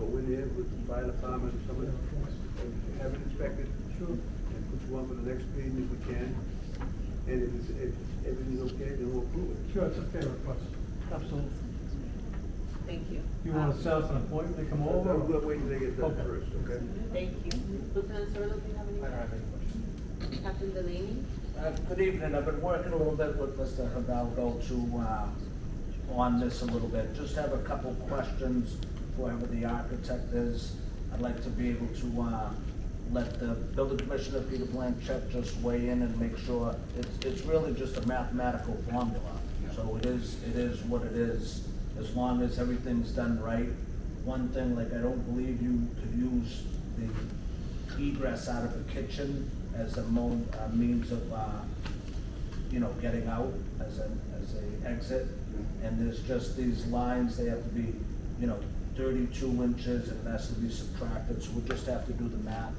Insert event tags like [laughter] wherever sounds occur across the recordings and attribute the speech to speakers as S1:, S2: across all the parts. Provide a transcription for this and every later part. S1: inspected with the fire department, someone who have it inspected. Sure. And put you on for the next meeting if we can. And if, it's- if everything's okay, then we'll approve it.
S2: Sure, it's a fair request. Absolutely.
S3: Thank you.
S2: You want to set up an appointment to come over?
S1: I'm gonna wait until they get done
S2: Okay.
S1: first, okay?
S3: Thank you. Lieutenant Sirleaf, do you have any?
S4: I don't have any questions.
S3: Captain Delaney?
S4: Uh, Good evening, I've been working a little bit with Mr. Hidalgo to, uh, on this a little bit. Just have a couple questions for whoever the architect is. I'd like to be able to uh, let the building commissioner, Peter Blanchett, just weigh in and make sure. It's, it's really just a mathematical formula. So it is, it is what it is, as long as everything's done right. One thing, like, I don't believe you could use the egress out of the kitchen as a mo, a means of, uh, you know, getting out as an, as a exit. And there's just these lines, they have to be, you know, thirty-two inches and it has to be subtracted, so we'll just have to do the math.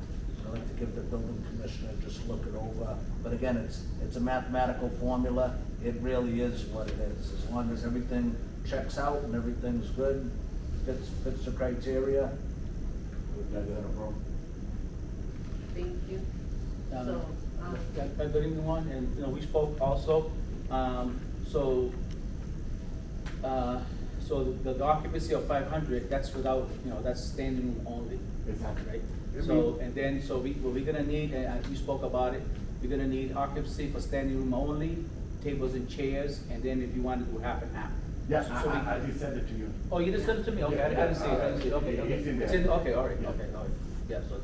S4: I'd like to give the building commissioner just look it over, but again, it's, it's a mathematical formula, it really is what it is. As long as everything checks out and everything's good, fits, fits the criteria,
S3: Thank you.
S5: Um,
S3: So, um,
S5: that- that Good evening, one, and, you know, we spoke also, um, so, uh, so the the occupancy of five hundred, that's without, you know, that's standing room only.
S4: Exactly.
S5: Right?
S1: Yeah,
S5: So,
S1: we-
S5: and then, so we, what we're gonna need, and uh, you spoke about it, we're gonna need occupancy for standing room only, tables and chairs, and then if you want, it will happen half.
S6: Yeah,
S5: So- so we-
S6: I, I, I did send it to you.
S5: Oh, you just sent it to me, okay, I I didn't see it, I didn't see it, okay, okay.
S6: It's in there.
S5: okay, all right,
S6: Yeah.
S5: okay, all right, yeah, so.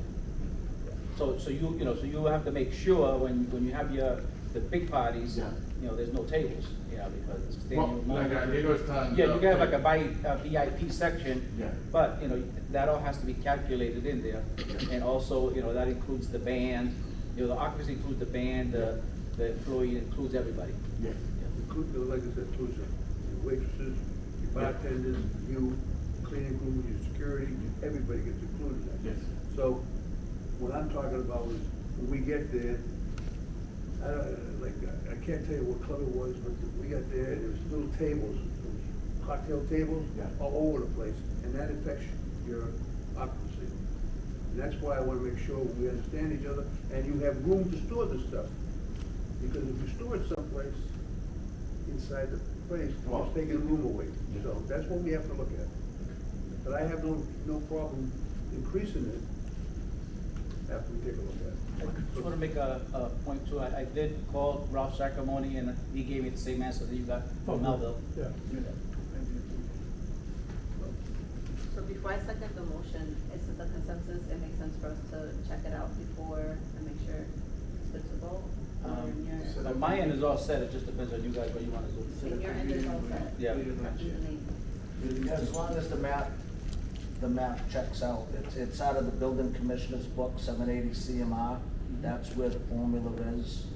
S5: So, so you, you know, so you have to make sure when, when you have your, the big parties,
S6: Yeah.
S5: you know, there's no tables, you know, because it's
S6: Well,
S5: standing room
S6: like I
S5: only.
S6: did was telling.
S5: Yeah,
S6: the-
S5: you can have like a vi- a VIP section.
S6: Yeah.
S5: But, you know, that all has to be calculated in there, and also, you know, that includes the band, you know, the occupancy includes the band, the, the employee includes everybody.
S6: Yeah,
S1: Include, uh, like I said, includes your waitresses, your bartenders, you, cleaning crew, your security, everybody gets included in that.
S6: Yes.
S1: So, what I'm talking about is, when we get there, I don't, uh, like, I- I can't tell you what club it was, but we got there, and there was little tables, cocktail tables,
S6: Yeah.
S1: all over the place, and that affects your occupancy. And that's why I wanna make sure we understand each other, and you have room to store this stuff. Because if you store it someplace inside the place, you're
S6: Well-
S1: just taking room away.
S6: Yeah.
S1: So that's what we have to look at. But I have no, no problem increasing it after we take a look
S5: I
S1: at it.
S5: just want to make a, a point too, I, I did call Ralph Sacramone and he gave me the same answer that you got from Melville.
S2: Yeah.
S3: so before I second the motion, is it the consensus, it makes sense for us to check it out before and make sure it's good to go? Or
S5: Um,
S3: in your-
S6: so-
S5: But my end is all set, it just depends on you guys what you want to
S3: In
S5: do.
S3: your end is all set?
S5: Yeah.
S3: Captain Delaney?
S4: As long as the map, the map checks out, it's, it's out of the building commissioner's book, seven eighty CMR, that's where the formula is,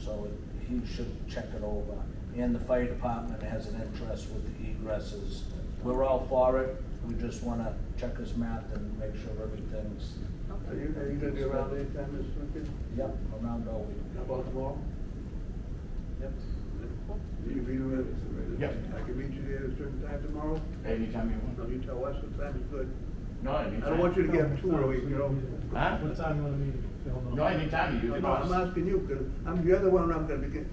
S4: so it- he should check it over. And the fire department has an interest with the egresses, we're all for it, we just wanna check his math and make sure everything's,
S1: Are
S3: [laughs] Okay.
S1: you, are you gonna be around anytime this weekend?
S4: yep, around all week.
S1: How about tomorrow?
S4: Yep.
S3: Cool.
S1: You can be there.
S6: Yeah.
S1: I can meet you there at a certain time tomorrow.
S6: anytime you
S1: No,
S6: want.
S1: you tell us the time is good.
S6: No,
S1: I
S6: anytime.
S1: don't want you to get up too early, you know?
S6: Huh?
S2: What time you want to meet? Phil?
S6: No, anytime you,
S1: No,
S6: you
S1: no, I'm
S6: boss.
S1: asking you, because I'm, you're the one I'm gonna be getting,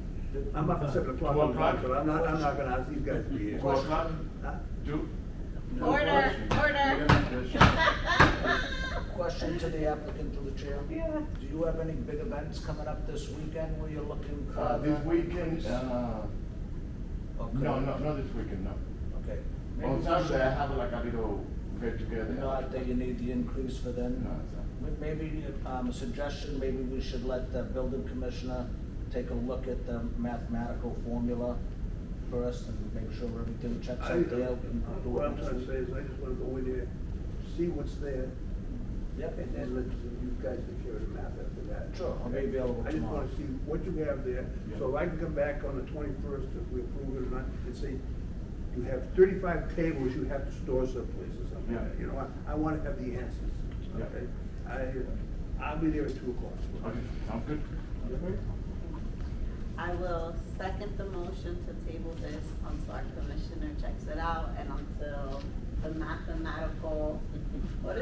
S1: I'm up at seven o'clock.
S6: Twelve o'clock?
S1: So I'm not, I'm not gonna ask these guys to be here.
S6: Four o'clock,
S1: Huh?
S6: two?
S3: Order, order.
S4: Question to the applicant, to the chair? Yeah. Do you have any big events coming up this weekend where you're looking
S3: [laughs]
S4: for?
S6: Uh, this
S4: the-
S6: weekend, uh,
S4: Okay.
S6: no, no, not this weekend, no.
S4: Okay.
S6: On Saturday, I have like a little get together.
S4: Not that you need the increase for then?
S6: No, it's
S4: M- Maybe, um, a suggestion, maybe we should let the building commissioner take a look at the mathematical formula first and make sure everything checks
S1: I,
S4: out there. and do
S1: what
S4: it
S1: I'm
S4: next
S1: trying to
S4: week.
S1: say is I just wanna go in there, see what's there,
S4: Yep,
S1: and then let you guys take care of the math after that.
S4: Sure, I'll be available
S1: I just wanna
S4: tomorrow.
S1: see what you have there, so I can come back on the twenty-first if we approve it or not, and say, you have thirty-five tables you have to store someplace or something,
S6: Yeah.
S1: you know, I, I wanna have the answers,
S6: Yeah.
S1: okay? I, I'll be there at two o'clock.
S6: Okay, sounds good.
S1: Mm-hmm.
S3: I will second the motion to table
S5: [laughs]
S3: this until our commissioner checks it out and until the mathematical